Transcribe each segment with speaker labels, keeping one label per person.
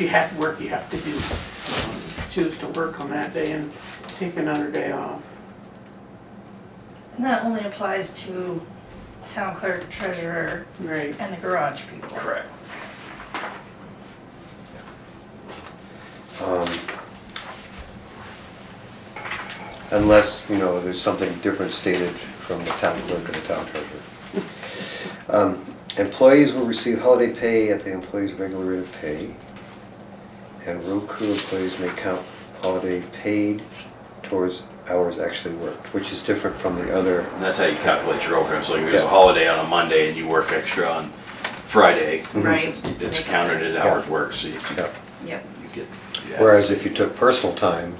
Speaker 1: you have work you have to do, um, choose to work on that day and take another day off.
Speaker 2: And that only applies to town clerk, treasurer,
Speaker 1: Right,
Speaker 2: and the garage people.
Speaker 3: Correct.
Speaker 4: Um, Unless, you know, there's something different stated from the town clerk and the town treasurer. Um, Employees will receive holiday pay at the employee's regular rate of pay. And road crew employees may count holiday paid towards hours actually worked, which is different from the other,
Speaker 3: And that's how you calculate your overtime, so if there's a
Speaker 4: Yeah.
Speaker 3: holiday on a Monday and you work extra on Friday,
Speaker 4: Mm-hmm.
Speaker 2: Right.
Speaker 3: it's it's counted as hours worked, so you
Speaker 4: yeah.
Speaker 2: Yep.
Speaker 3: you get.
Speaker 4: Whereas if you took personal time,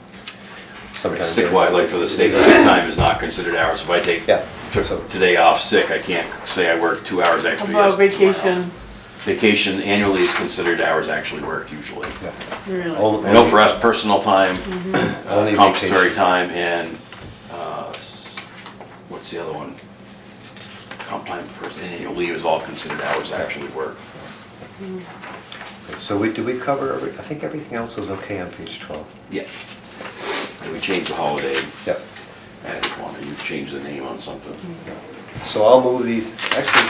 Speaker 4: sometimes.
Speaker 3: Sick, why, like for the state, sick time is not considered hours, if I take,
Speaker 4: Yeah.
Speaker 3: took today off sick, I can't say I worked two hours extra
Speaker 1: about
Speaker 3: yesterday. tomorrow.
Speaker 1: vacation,
Speaker 3: Vacation annually is considered hours actually worked usually.
Speaker 4: Yeah.
Speaker 1: really.
Speaker 4: All-
Speaker 3: I know for us, personal time, uh,
Speaker 4: Only
Speaker 3: compensatory
Speaker 4: vacation.
Speaker 3: time, and, uh, s- what's the other one? Comp time, pers- and annual leave is all considered hours actually worked.
Speaker 4: So we, did we cover, every- I think everything else was okay on page 12.
Speaker 3: Yeah. And we changed the holiday,
Speaker 4: Yep.
Speaker 3: added one, or you changed the name on something.
Speaker 4: So I'll move these, actually,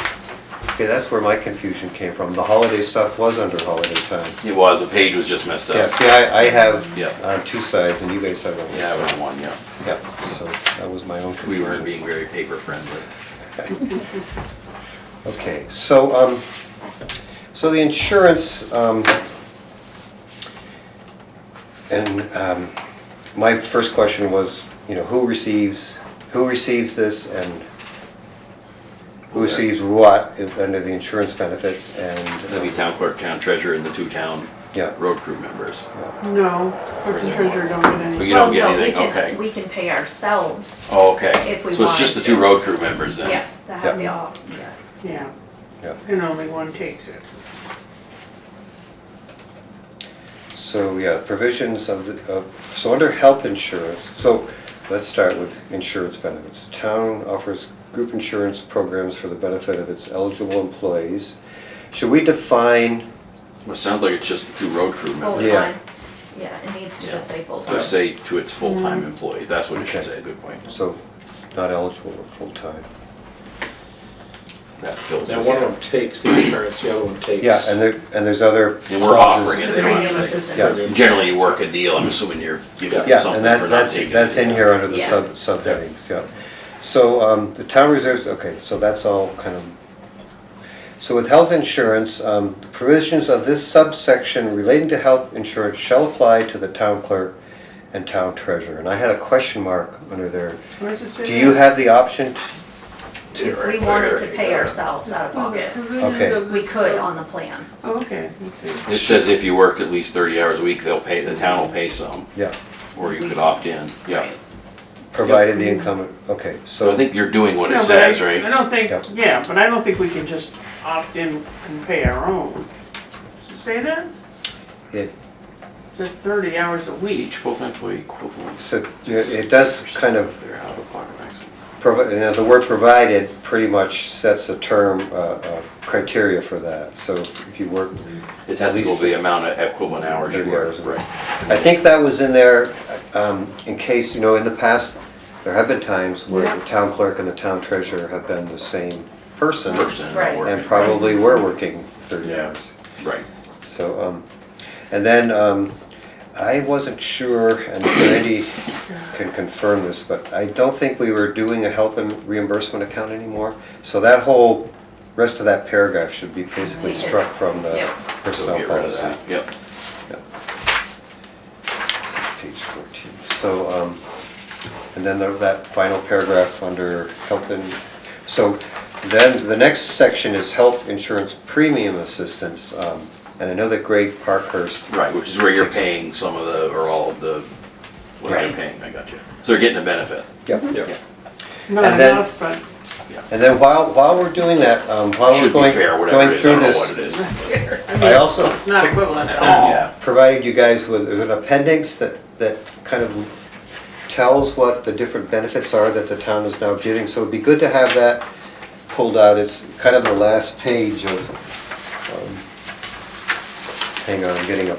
Speaker 4: okay, that's where my confusion came from. The holiday stuff was under holiday time.
Speaker 3: It was, the page was just messed
Speaker 4: Yeah,
Speaker 3: up.
Speaker 4: see, I, I have
Speaker 3: Yeah.
Speaker 4: on two sides and you guys have on one.
Speaker 3: Yeah, it was one, yeah.
Speaker 4: Yeah, so that was my own
Speaker 3: We
Speaker 4: confusion.
Speaker 3: weren't being very paper friendly.
Speaker 4: Okay, so, um, so the insurance, um, and, um, my first question was, you know, who receives, who receives this and who
Speaker 3: Okay.
Speaker 4: receives what if- under the insurance benefits and.
Speaker 3: That'd be town clerk, town treasurer, and the two town
Speaker 4: Yeah.
Speaker 3: road crew members.
Speaker 1: No, clerk and treasurer don't get
Speaker 3: But
Speaker 1: any.
Speaker 3: you don't get
Speaker 5: Well, no, we
Speaker 3: anything,
Speaker 5: can-
Speaker 3: okay.
Speaker 5: We can pay ourselves,
Speaker 3: Oh, okay.
Speaker 5: If we
Speaker 3: So it's just the
Speaker 5: wanted
Speaker 3: two
Speaker 5: to.
Speaker 3: road crew members then?
Speaker 5: yes, that have the all, yeah.
Speaker 1: Yeah,
Speaker 4: Yeah,
Speaker 1: and only one takes it.
Speaker 4: so, yeah, provisions of, the of, so under health insurance, so let's start with insurance benefits. Town offers group insurance programs for the benefit of its eligible employees. Should we define?
Speaker 3: Well, it sounds like it's just the two road crew members.
Speaker 4: Yeah.
Speaker 5: full-time, yeah, it needs to just say full-time.
Speaker 3: Just say to its full-time
Speaker 4: Mm.
Speaker 3: employees, that's what it should
Speaker 4: Okay.
Speaker 3: say, good point.
Speaker 4: So not eligible or full-time.
Speaker 3: That fills
Speaker 6: Now, one of
Speaker 3: it.
Speaker 6: them takes the insurance, the other one takes.
Speaker 4: Yeah, and there, and there's other.
Speaker 3: And we're offering it, they don't
Speaker 5: Regular
Speaker 3: have
Speaker 5: assistant.
Speaker 4: Yeah.
Speaker 3: to. Generally, you work a deal, I'm assuming you're giving
Speaker 4: Yeah,
Speaker 3: something
Speaker 4: and
Speaker 3: for
Speaker 4: that,
Speaker 3: not
Speaker 4: that's,
Speaker 3: taking.
Speaker 4: that's
Speaker 3: it.
Speaker 4: in here under the
Speaker 5: Yeah.
Speaker 4: sub, subheadings, yeah. So, um, the town reserves, okay, so that's all kind of. So with health insurance, um, the provisions of this subsection relating to health insurance shall apply to the town clerk and town treasurer. And I had a question mark under there.
Speaker 1: What does it say?
Speaker 4: Do you have the option? t-
Speaker 5: If we wanted to pay ourselves out of pocket,
Speaker 4: Okay.
Speaker 5: we could on the plan.
Speaker 1: Oh, Okay, okay.
Speaker 3: It says if you worked at least thirty hours a week, they'll pay, the town will pay some,
Speaker 4: Yeah,
Speaker 3: or you could opt in, yeah.
Speaker 4: provided the income, okay, so.
Speaker 3: So I think you're doing what
Speaker 1: No,
Speaker 3: it
Speaker 1: but
Speaker 3: says,
Speaker 1: I- I
Speaker 3: right?
Speaker 1: don't think,
Speaker 4: Yeah.
Speaker 1: yeah, but I don't think we can just opt in and pay our own. Does it Say that?
Speaker 4: It
Speaker 1: It's at thirty hours a week.
Speaker 3: Each full-time employee equivalent.
Speaker 4: So yeah, it does kind of,
Speaker 3: They're out of pocket maximum.
Speaker 4: provi- you know, the word provided pretty much sets a term, uh, uh, criteria for that. So if you work,
Speaker 3: It
Speaker 4: At
Speaker 3: has to go
Speaker 4: least
Speaker 3: the amount of equivalent hours you
Speaker 4: 30
Speaker 3: work.
Speaker 4: hours a week. I think that was in there um, in case, you know, in the past, there have been times where the town clerk and the town treasurer have been the same person
Speaker 3: Person and
Speaker 5: Right.
Speaker 4: and
Speaker 3: working.
Speaker 4: probably were working 30 hours.
Speaker 3: Right.
Speaker 4: So, um, and then, um, I wasn't sure, and Randy can confirm this, but I don't think we were doing a health and reimbursement account anymore. So that whole, rest of that paragraph should be basically
Speaker 5: Deleted.
Speaker 4: struck from the
Speaker 5: Yep.
Speaker 3: So
Speaker 4: personnel
Speaker 3: get rid of
Speaker 4: policy.
Speaker 3: that, yep.
Speaker 4: Page fourteen, so, um, and then the- that final paragraph under health and, so then the next section is health insurance premium assistance. um, And I know that Greg Parkhurst
Speaker 3: Right, which is where you're paying some of the, or all of the, what they're
Speaker 5: Right.
Speaker 3: paying, I got you. So they're getting a benefit.
Speaker 4: Yep.
Speaker 3: Yeah.
Speaker 1: Not
Speaker 4: And then-
Speaker 1: enough, but
Speaker 4: And then while, while we're doing that, um, while we're
Speaker 3: Should be
Speaker 4: going,
Speaker 3: fair, whatever
Speaker 4: going
Speaker 3: it is, I
Speaker 4: through
Speaker 3: don't know what it
Speaker 4: this,
Speaker 3: is.
Speaker 4: I also
Speaker 1: not equivalent at all.
Speaker 3: Yeah,
Speaker 4: provided you guys with, there's an appendix that, that kind of tells what the different benefits are that the town is now giving, so it'd be good to have that pulled out, it's kind of the last page of, um, hang on, I'm getting a